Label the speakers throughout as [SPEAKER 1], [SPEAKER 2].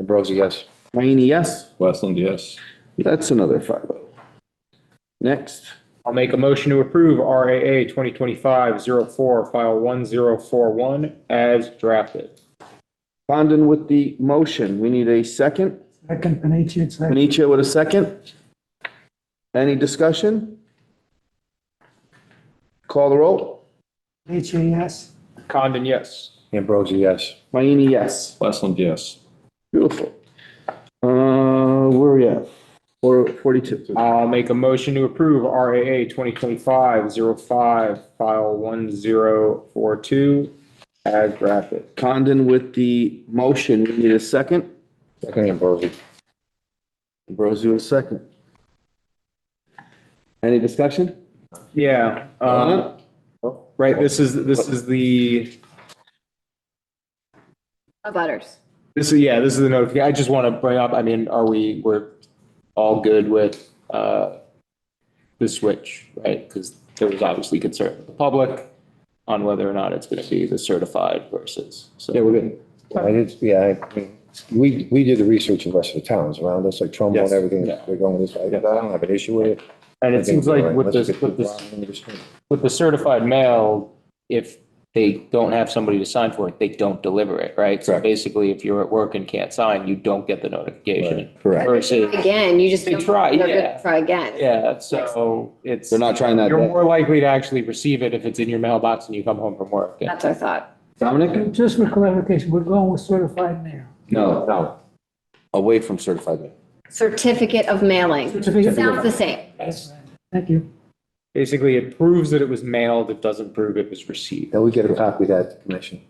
[SPEAKER 1] Ambrosi, yes.
[SPEAKER 2] Mayne, yes.
[SPEAKER 3] Westland, yes.
[SPEAKER 2] That's another five oh. Next,
[SPEAKER 4] I'll make a motion to approve RAA 2025-04, file 1041, as drafted.
[SPEAKER 2] Condon with the motion. We need a second.
[SPEAKER 5] Second, E Panitia, second.
[SPEAKER 2] Panitia with a second. Any discussion? Call the roll.
[SPEAKER 5] Panitia, yes.
[SPEAKER 4] Condon, yes.
[SPEAKER 1] Ambrosi, yes.
[SPEAKER 2] Mayne, yes.
[SPEAKER 3] Westland, yes.
[SPEAKER 2] Beautiful. Uh, where are we at? Four forty-two.
[SPEAKER 4] I'll make a motion to approve RAA 2025-05, file 1042, as drafted.
[SPEAKER 2] Condon with the motion. We need a second.
[SPEAKER 1] Second Ambrosi.
[SPEAKER 2] Ambrosi with a second. Any discussion?
[SPEAKER 4] Yeah,
[SPEAKER 2] Uh-huh.
[SPEAKER 4] um, right, this is, this is the,
[SPEAKER 6] Of butters.
[SPEAKER 4] this is, yeah, this is the notification. I just want to bring up, I mean, are we, we're all good with, uh, the switch, right? Because there was obviously concern with the public on whether or not it's going to be the certified versus, so.
[SPEAKER 1] Yeah, we're good. I did, yeah, I- we, we did the research in rest of the towns around us, like Trumbo
[SPEAKER 4] Yes.
[SPEAKER 1] and everything.
[SPEAKER 4] Yeah.
[SPEAKER 1] We're going this, way. I don't have an issue with it.
[SPEAKER 4] And
[SPEAKER 1] I
[SPEAKER 4] it
[SPEAKER 1] think
[SPEAKER 4] seems
[SPEAKER 1] we're
[SPEAKER 4] like
[SPEAKER 1] all right.
[SPEAKER 4] with
[SPEAKER 1] Let's
[SPEAKER 4] this,
[SPEAKER 1] get
[SPEAKER 4] with
[SPEAKER 1] the
[SPEAKER 4] this,
[SPEAKER 1] bottom of this thing.
[SPEAKER 4] with the certified mail, if they don't have somebody to sign for it, they don't deliver it, right? So
[SPEAKER 1] Correct.
[SPEAKER 4] basically, if you're at work and can't sign, you don't get the notification.
[SPEAKER 1] Right, correct.
[SPEAKER 4] Versus,
[SPEAKER 6] Again, you just.
[SPEAKER 4] They
[SPEAKER 6] don't-
[SPEAKER 4] try,
[SPEAKER 6] they're gonna
[SPEAKER 4] yeah.
[SPEAKER 6] Try again.
[SPEAKER 4] yeah, so it's,
[SPEAKER 2] They're not trying that.
[SPEAKER 4] you're more likely to actually receive it if it's in your mailbox and you come home from work.
[SPEAKER 6] That's our thought.
[SPEAKER 2] Dominic?
[SPEAKER 5] Just for clarification, we're going with certified mail.
[SPEAKER 2] No, no. Away from certified mail.
[SPEAKER 6] Certificate of mailing. Sounds the same.
[SPEAKER 5] Thank you.
[SPEAKER 4] Basically, it proves that it was mailed, it doesn't prove it was received.
[SPEAKER 1] Then we get a copy of that to commission.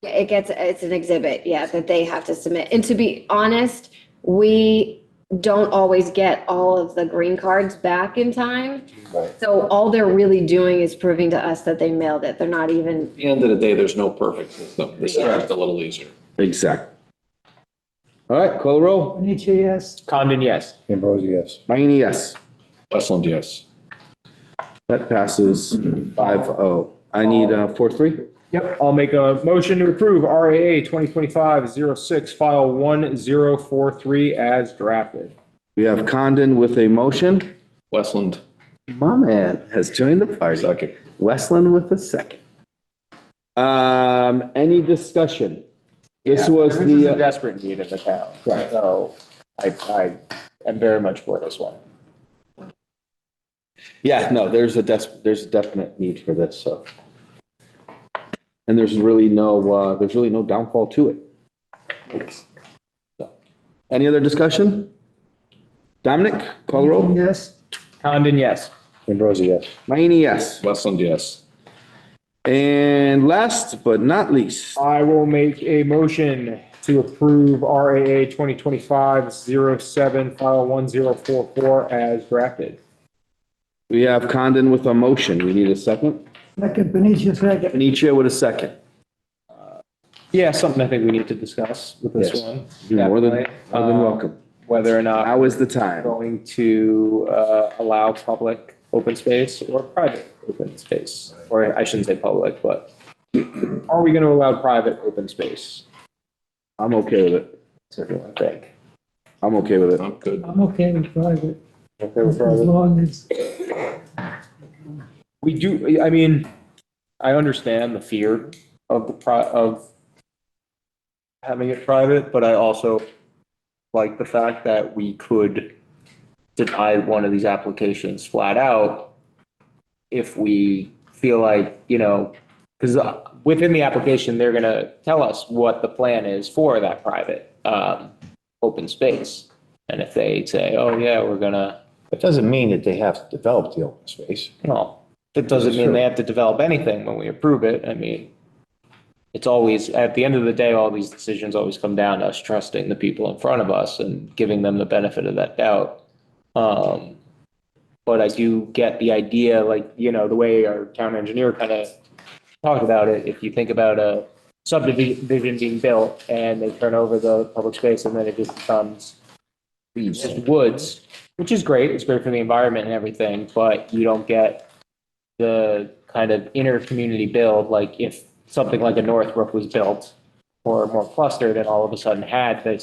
[SPEAKER 6] Yeah, It gets, it's an exhibit, yeah, that they have to submit. And to be honest, we don't always get all of the green cards back in time.
[SPEAKER 1] Right.
[SPEAKER 6] So all they're really doing is proving to us that they mailed it. They're not even,
[SPEAKER 3] At the end of the day, there's no perfect system. This is just a little easier.
[SPEAKER 2] Exactly. All right, call the roll.
[SPEAKER 5] Panitia, yes.
[SPEAKER 4] Condon, yes.
[SPEAKER 1] Ambrosi, yes.
[SPEAKER 2] Mayne, yes.
[SPEAKER 3] Westland, yes.
[SPEAKER 2] That passes 5-0. I need uh four three.
[SPEAKER 4] Yep. I'll make a motion to approve RAA 2025-06, file 1043 as drafted.
[SPEAKER 2] We have Condon with a motion.
[SPEAKER 3] Westland,
[SPEAKER 2] My man has joined the party.
[SPEAKER 3] second.
[SPEAKER 2] Westland with a second. Um, any discussion? This was
[SPEAKER 4] This is a
[SPEAKER 2] the, uh,
[SPEAKER 4] desperate need of the town. Right. So I, I am very much for this one.
[SPEAKER 2] yeah, no, there's a des- there's a definite need for this, so. And there's really no, uh, there's really no downfall to it. So, Any other discussion? Dominic, call the roll.
[SPEAKER 5] Yes.
[SPEAKER 4] Condon, yes.
[SPEAKER 1] Ambrosi, yes.
[SPEAKER 2] Mayne, yes.
[SPEAKER 3] Westland, yes.
[SPEAKER 2] And last but not least,
[SPEAKER 4] I will make a motion to approve RAA 2025-07, file 1044 as drafted.
[SPEAKER 2] we have Condon with a motion. We need a second.
[SPEAKER 5] Second, E Panitia, second.
[SPEAKER 2] Panitia with a second.
[SPEAKER 4] Yeah, something I think we need to discuss with this
[SPEAKER 2] Yes.
[SPEAKER 4] one.
[SPEAKER 2] You're more than, more than
[SPEAKER 4] Um,
[SPEAKER 2] welcome.
[SPEAKER 4] Whether or not
[SPEAKER 2] Now is the
[SPEAKER 4] we're
[SPEAKER 2] time.
[SPEAKER 4] going to uh, allow public open space or private open space. Or I shouldn't say public, but are we going to allow private open space?
[SPEAKER 2] I'm okay with it.
[SPEAKER 4] So if you want to think.
[SPEAKER 2] I'm okay with it.
[SPEAKER 3] I'm good.
[SPEAKER 5] I'm okay with private,
[SPEAKER 4] Okay,
[SPEAKER 5] as long as,
[SPEAKER 4] We do, I mean, I understand the fear of the pri, of having it private, but I also like the fact that we could deny one of these applications flat out if we feel like, you know, because within the application, they're gonna tell us what the plan is for that private, um, open space. And if they say, oh, yeah, we're gonna,
[SPEAKER 1] It doesn't mean that they have to develop the open space.
[SPEAKER 4] no, that doesn't mean they have to develop anything when we approve it. I mean, it's always, at the end of the day, all these decisions always come down to us trusting the people in front of us and giving them the benefit of that doubt. Um, but I do get the idea, like, you know, the way our town engineer kind of talked about it, if you think about a subdivision being built and they turn over the public space and then it just becomes just woods, which is great. It's great for the environment and everything, but you don't get the kind of inner community build. Like if something like a Northbrook was built or more clustered and all of a sudden had this